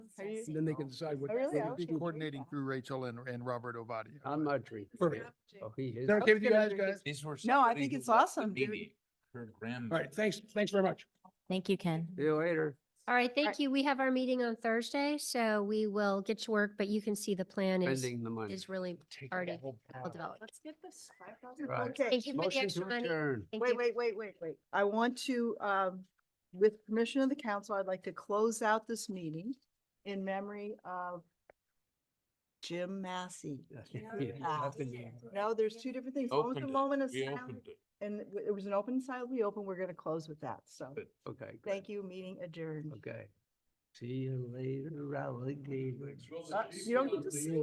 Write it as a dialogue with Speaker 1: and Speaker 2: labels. Speaker 1: Are you-
Speaker 2: Then they can decide what.
Speaker 1: I Oh, really
Speaker 2: what they
Speaker 1: appreciate
Speaker 2: do.
Speaker 1: it.
Speaker 3: coordinating through Rachel and, and Robert Ovadia.
Speaker 4: I'm not tree.
Speaker 2: Perfect.
Speaker 4: Oh, he
Speaker 2: Is
Speaker 4: is.
Speaker 2: that okay with you guys, guys?
Speaker 5: These were.
Speaker 1: No, I
Speaker 5: somebody
Speaker 1: think
Speaker 5: who
Speaker 1: it's
Speaker 5: worked with
Speaker 1: awesome, dude.
Speaker 5: Mimi, Her grandma.
Speaker 2: All right, thanks, thanks very much.
Speaker 6: Thank you, Ken.
Speaker 4: See you later.
Speaker 7: All right,
Speaker 1: right.
Speaker 7: thank you. We have our meeting on Thursday, so we will get to work, but you can see the plan is,
Speaker 4: Spending the money.
Speaker 7: is really already well developed.
Speaker 1: Let's get this five
Speaker 4: Right.
Speaker 1: thousand. Okay,
Speaker 7: Thank you for the
Speaker 4: Motion
Speaker 7: extra
Speaker 4: to
Speaker 7: money.
Speaker 4: adjourn.
Speaker 7: Thank
Speaker 1: wait,
Speaker 7: you.
Speaker 1: wait, wait, wait, wait. I want to, um, with permission of the council, I'd like to close out this meeting in memory of Jim Massey. No, there's two different things. One was a
Speaker 5: Opened it.
Speaker 1: moment of
Speaker 5: We
Speaker 1: silence,
Speaker 5: opened it.
Speaker 1: and it w- it was an open silence. We open, we're gonna close with that, so.
Speaker 5: Good.
Speaker 4: Okay. good.
Speaker 1: Thank you, meeting adjourned.
Speaker 4: Okay. See you later, alligator.
Speaker 1: Uh, You don't get to see